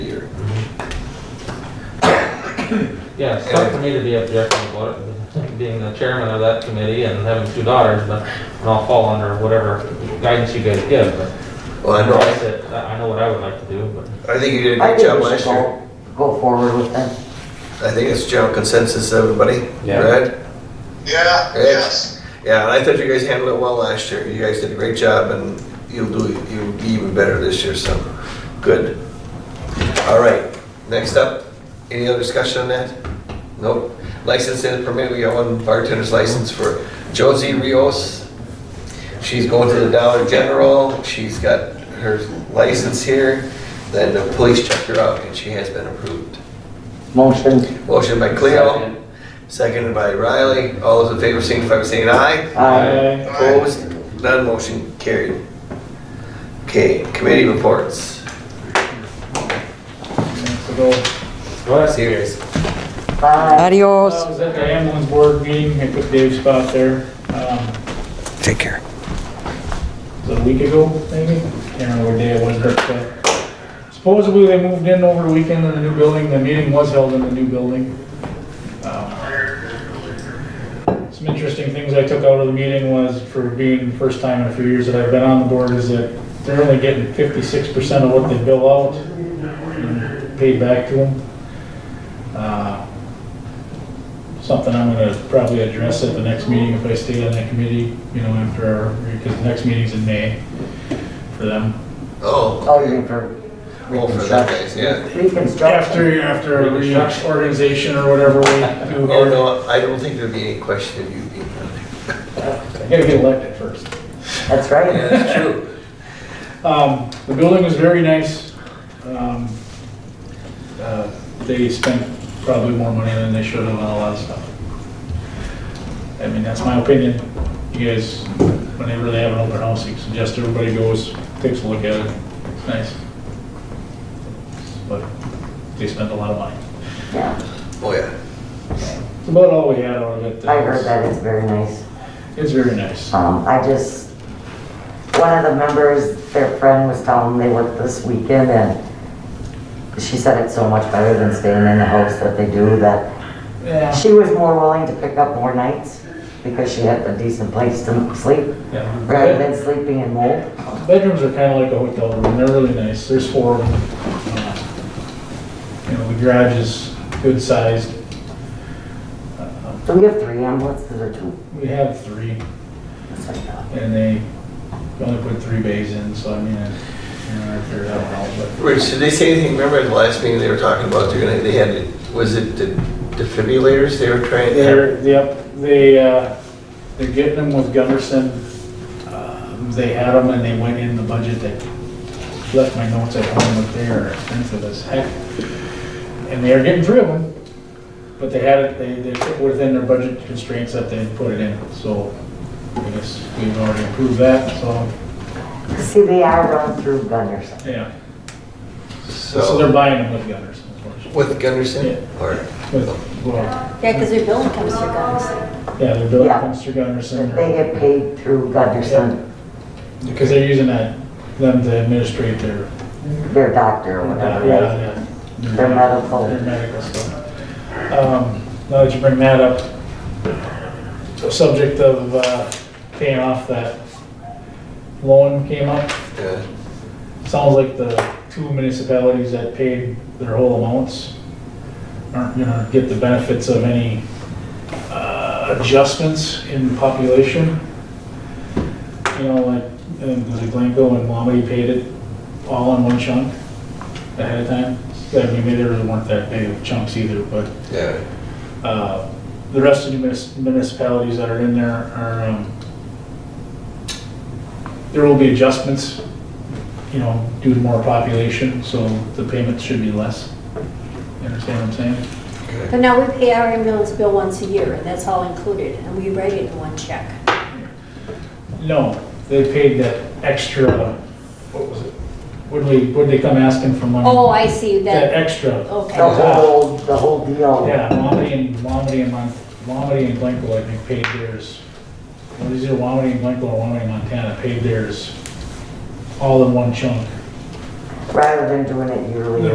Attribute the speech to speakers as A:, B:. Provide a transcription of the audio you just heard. A: Yeah, it's tough for me to be objecting about it, being the chairman of that committee and having two daughters, but and I'll fall under whatever guidance you guys give, but
B: Well, I
A: I
B: know,
A: said, I I know what I would like to do, but
B: I think you did a
C: I
B: good
C: think
B: job
C: we should
B: last year.
C: go, go forward with them.
B: I think it's general consensus, everybody,
D: Yeah.
B: right?
E: Yeah,
B: Yeah.
E: yes.
B: Yeah, and I thought you guys handled it well last year. You guys did a great job and you'll do, you'll be even better this year, so, good. All right, next up, any other discussion on that? Nope. License and permit, we got one bartender's license for Josie Rios. She's going to the Dollar General, she's got her license here, then the police checked her out and she has been approved.
C: Motion,
B: Motion by Cleo, seconded by Riley. All those in favor signify by saying aye.
C: aye.
B: Opposed? None motion carried. Okay, committee reports.
A: Well, that's-
B: See you guys.
C: Aye.
F: Adios.
G: I was at the ambulance board meeting, I took Dave's spot there, um,
B: Take care.
G: was it a week ago, maybe? Can't remember what day it was, but uh, supposedly they moved in over the weekend in the new building, the meeting was held in the new building. Um, Some interesting things I took out of the meeting was, for being the first time in a few years that I've been on the board, is that they're only getting fifty-six percent of what they bill out, and paid back to them. Uh, something I'm gonna probably address at the next meeting if I stay on that committee, you know, after our, because the next meeting's in May for them.
B: Oh,
C: Oh, you mean for
B: well, for that
C: reconstruction?
B: guys, yeah.
C: Reconstruction.
G: After, after a reorganization or whatever we do
B: Oh,
G: here.
B: no, I don't think there'd be any question of you being on there.
G: I gotta get elected first.
C: That's right.
B: Yeah, that's true.
G: Um, the building was very nice. Um, uh, They spent probably more money than they should have on a lot of stuff. I mean, that's my opinion. You guys, whenever they have an open house, you suggest everybody goes, takes a look at it. It's nice. But they spent a lot of money.
C: Yeah,
B: Oh, yeah.
G: It's about all we had out of it.
C: I heard that it's very nice.
G: It's very nice.
C: Um, I just, one of the members, their friend was telling them they worked this weekend and she said it's so much better than staying in the house that they do that
G: Yeah.
C: she was more willing to pick up more nights because she had a decent place to sleep rather
G: Yeah.
C: than sleeping in mold.
G: Bedrooms are kind of like a hotel room, they're really nice, there's four of them. Uh, You know, the garage is good sized. Uh,
C: Do we have three ambulances or two?
G: We have three,
C: That's what I thought.
G: and they only put three bays in, so I mean, you know, I figured out how, but
B: Rich, did they say anything? Remember at the last meeting they were talking about, they're gonna, they had, was it the defibrillators they were trying?
G: They're, yep, they, uh, they're getting them with Gunderson. Um, They had them and they went in the budget, they left my notes at home, but they are expensive as heck. And they are getting three of them, but they had it, they, they took within their budget constraints that they had put it in, so I guess we've already approved that, so,
C: See, they are run through Gunderson.
G: yeah. So they're
B: So,
G: buying them with Gunderson, unfortunately.
B: with Gunderson or?
G: With- well,
H: Yeah, because their billing comes through guns.
G: Yeah, they're building
C: Yeah.
G: Mr. Gunderson.
C: If They get paid through Gunderson,
G: Because they're using that, them to administrate their,
C: their doctor or
G: yeah,
C: whatever. right?
G: yeah.
C: Their medical.
G: Their medical stuff. Um, Now that you bring that up, the subject of uh, paying off that loan came up.
B: Yeah.
G: Sounds like the two municipalities that paid their whole amounts aren't gonna get the benefits of any uh, adjustments in population. You know, like, um, was it Glencoe and Wamedy paid it all in one chunk ahead of time? I mean, maybe there weren't that big of chunks either, but
B: Yeah.
G: uh, The rest of the munis- municipalities that are in there are, um, there will be adjustments, you know, due to more population, so the payments should be less. You understand what I'm saying?
B: Okay.
H: But now we pay our ambulance bill once a year, and that's all included, and we write it in one check.
G: No, they paid that extra, what was it? Would we, would they come asking for money?
H: Oh, I see,
G: That
H: that,
G: extra.
C: The
H: okay.
C: whole, the whole deal.
G: Yeah, Wamedy and, Wamedy and, Mon- Wamedy and Glencoe, I think, paid theirs. What is it, Wamedy and Glencoe or Wamedy and Montana paid theirs all in one chunk.
C: Rather than doing it yearly.